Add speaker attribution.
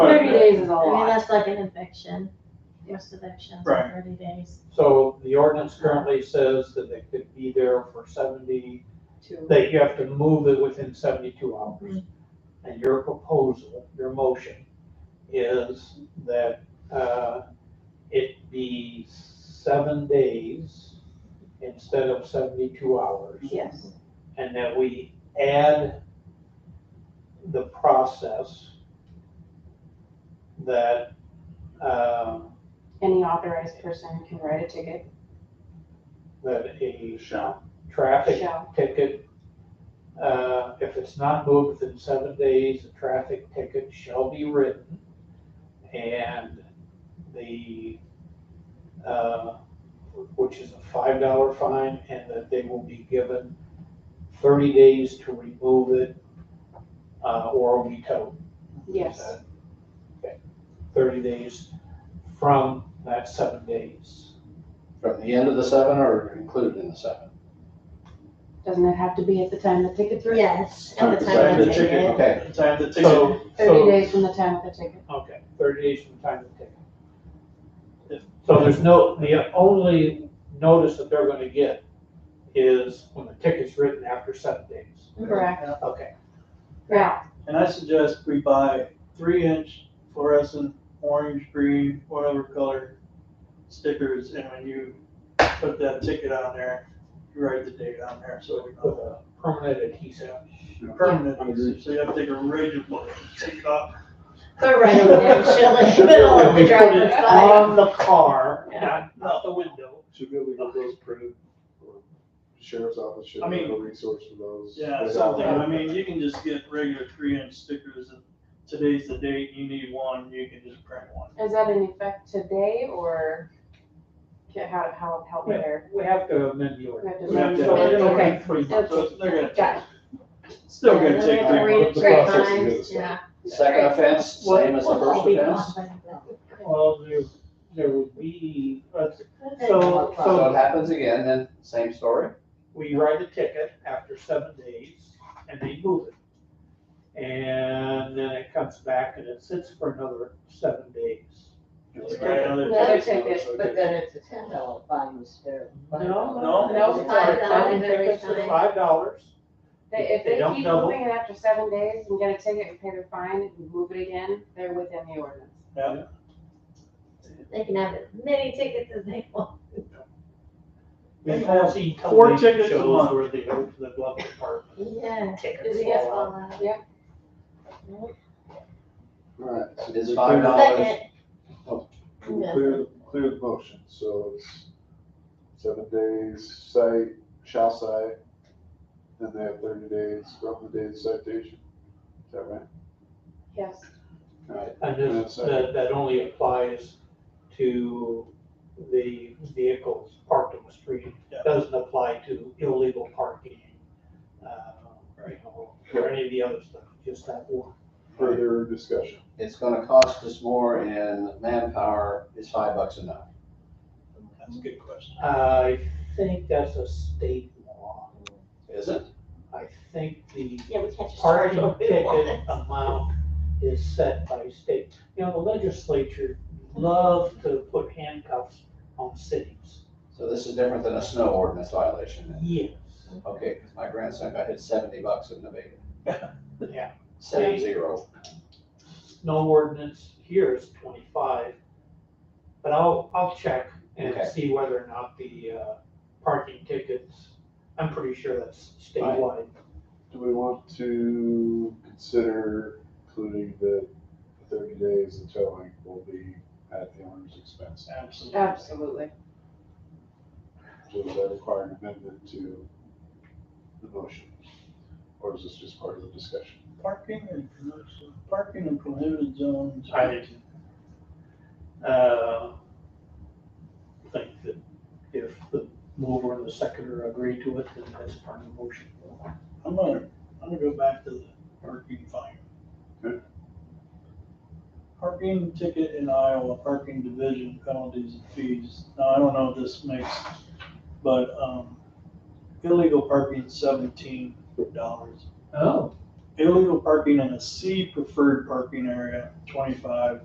Speaker 1: That's like an eviction, most evictions are
Speaker 2: Right.
Speaker 1: thirty days.
Speaker 2: So the ordinance currently says that they could be there for seventy,
Speaker 3: to,
Speaker 2: that you have to move it within seventy-two hours. And your proposal, your motion is that, uh, it be seven days instead of seventy-two hours.
Speaker 3: yes,
Speaker 2: and that we add the process that, um,
Speaker 3: any authorized person can write a ticket,
Speaker 2: that a
Speaker 4: Shall.
Speaker 2: traffic
Speaker 3: shall,
Speaker 2: ticket, uh, if it's not moved within seven days, a traffic ticket shall be written. And the, uh, which is a five dollar fine, and that they will be given thirty days to remove it, uh, or be towed.
Speaker 3: yes,
Speaker 2: Okay. Thirty days from that seven days.
Speaker 4: From the end of the seven or included in the seven?
Speaker 3: doesn't it have to be at the time the ticket's written?
Speaker 1: Yes, at the
Speaker 4: Time
Speaker 1: time
Speaker 4: to
Speaker 1: of
Speaker 4: the ticket,
Speaker 1: ticket.
Speaker 4: Okay,
Speaker 5: Time to take it.
Speaker 2: So,
Speaker 3: Thirty
Speaker 2: so,
Speaker 3: days from the time of the ticket,
Speaker 2: okay, thirty days from time of ticket. So there's no, the only notice that they're gonna get is when the ticket's written after seven days.
Speaker 3: correct,
Speaker 2: Okay,
Speaker 3: now,
Speaker 5: And I suggest we buy three inch fluorescent, orange, green, whatever color stickers, and when you put that ticket on there, you write the date on there, so we
Speaker 2: with
Speaker 5: know
Speaker 2: a permanent adhesive.
Speaker 5: the permanent, use. so you have to take a rigid one, take it off.
Speaker 1: They're right in there, chilling, in the middle of the driver's side.
Speaker 2: On the car,
Speaker 1: Yeah.
Speaker 2: not, not the window.
Speaker 6: Should be able to get those printed, or sheriff's office should
Speaker 5: I
Speaker 6: have
Speaker 5: mean-
Speaker 6: a resource for those.
Speaker 5: Yeah,
Speaker 6: They got
Speaker 5: something,
Speaker 6: that.
Speaker 5: I mean, you can just get regular three inch stickers, and today's the date, you need one, you can just print one.
Speaker 3: is that in effect today, or ca- how, how, how there?
Speaker 2: We have to amend the order.
Speaker 3: We
Speaker 2: So
Speaker 5: have to-
Speaker 2: we're gonna
Speaker 3: Okay.
Speaker 2: wait three months.
Speaker 5: So they're gonna,
Speaker 3: Got
Speaker 5: still gonna take
Speaker 1: They're gonna
Speaker 5: three
Speaker 1: read it
Speaker 5: months.
Speaker 6: The
Speaker 1: three
Speaker 6: process to
Speaker 1: times,
Speaker 6: get this
Speaker 1: yeah.
Speaker 4: second offense, same as the first offense?
Speaker 2: Well, there, there would be, let's,
Speaker 1: So,
Speaker 4: So it happens again, then same story?
Speaker 2: we write a ticket after seven days and they move it. And then it comes back and it sits for another seven days.
Speaker 5: Right, another
Speaker 7: Another
Speaker 5: ticket.
Speaker 7: ticket, but then it's a ten dollar fine instead
Speaker 2: No,
Speaker 7: of.
Speaker 2: no.
Speaker 3: No,
Speaker 2: it's
Speaker 1: five
Speaker 2: not.
Speaker 1: dollars every
Speaker 2: It's
Speaker 1: time.
Speaker 2: Five dollars.
Speaker 3: They- If
Speaker 2: They
Speaker 3: they
Speaker 2: don't
Speaker 3: keep
Speaker 2: double.
Speaker 3: moving it after seven days and get a ticket and pay their fine and move it again, they're within the ordinance.
Speaker 1: They can have as many tickets as they want.
Speaker 2: We've all seen
Speaker 5: Four
Speaker 2: television
Speaker 5: tickets a
Speaker 2: shows
Speaker 5: month.
Speaker 2: where they go to the glove department.
Speaker 1: Yeah.
Speaker 3: Is
Speaker 1: Tickets.
Speaker 3: it
Speaker 1: Yes,
Speaker 3: yes,
Speaker 1: all out.
Speaker 6: Alright, so
Speaker 4: Is
Speaker 6: we
Speaker 4: five
Speaker 6: clear-
Speaker 4: dollars, Oh,
Speaker 1: Second,
Speaker 6: we Clear, clear the motion, so it's seven days site, shall site, then they have thirty days, roughly days citation, is that right?
Speaker 3: Yes,
Speaker 6: Alright,
Speaker 2: And
Speaker 6: Yeah,
Speaker 2: this,
Speaker 6: so-
Speaker 2: that, that only applies to the vehicles parked on the street.
Speaker 5: Yeah.
Speaker 2: Doesn't apply to illegal parking, uh, you know, or any of the other stuff, just that one.
Speaker 6: further discussion,
Speaker 4: it's gonna cost us more in manpower, is five bucks enough?
Speaker 5: That's a good question.
Speaker 2: I think that's a state law.
Speaker 4: Is it?
Speaker 2: I think the
Speaker 1: yeah, we can't just charge
Speaker 2: parking
Speaker 1: what we
Speaker 2: ticket
Speaker 1: want.
Speaker 2: amount is set by state. You know, the legislature loves to put handcuffs on cities.
Speaker 4: So this is different than a snow ordinance violation then?
Speaker 2: Yes.
Speaker 4: Okay, 'cause my grandson got hit seventy bucks in Nevada.
Speaker 2: Yeah.
Speaker 4: Seven zero.
Speaker 2: No ordinance here is twenty-five, but I'll, I'll check and
Speaker 4: Okay.
Speaker 2: see whether or not the, uh, parking tickets, I'm pretty sure that's
Speaker 4: Right.
Speaker 2: statewide.
Speaker 6: do we want to consider including the thirty days and towing will be at the owner's expense?
Speaker 5: Absolutely.
Speaker 3: absolutely.
Speaker 6: Does that require an amendment to the motion? Or is this just part of the discussion?
Speaker 5: Parking and commercial, parking in prohibited zones.
Speaker 2: I did. Uh, think that if the mover and the seconder agree to it, then that's part of the motion.
Speaker 5: I'm gonna, I'm gonna go back to the parking fine.
Speaker 6: Okay.
Speaker 5: Parking ticket in Iowa, parking division penalties and fees. Now, I don't know if this makes, but, um, illegal parking seventeen dollars.
Speaker 2: Oh.
Speaker 5: Illegal parking in a C preferred parking area, twenty-five.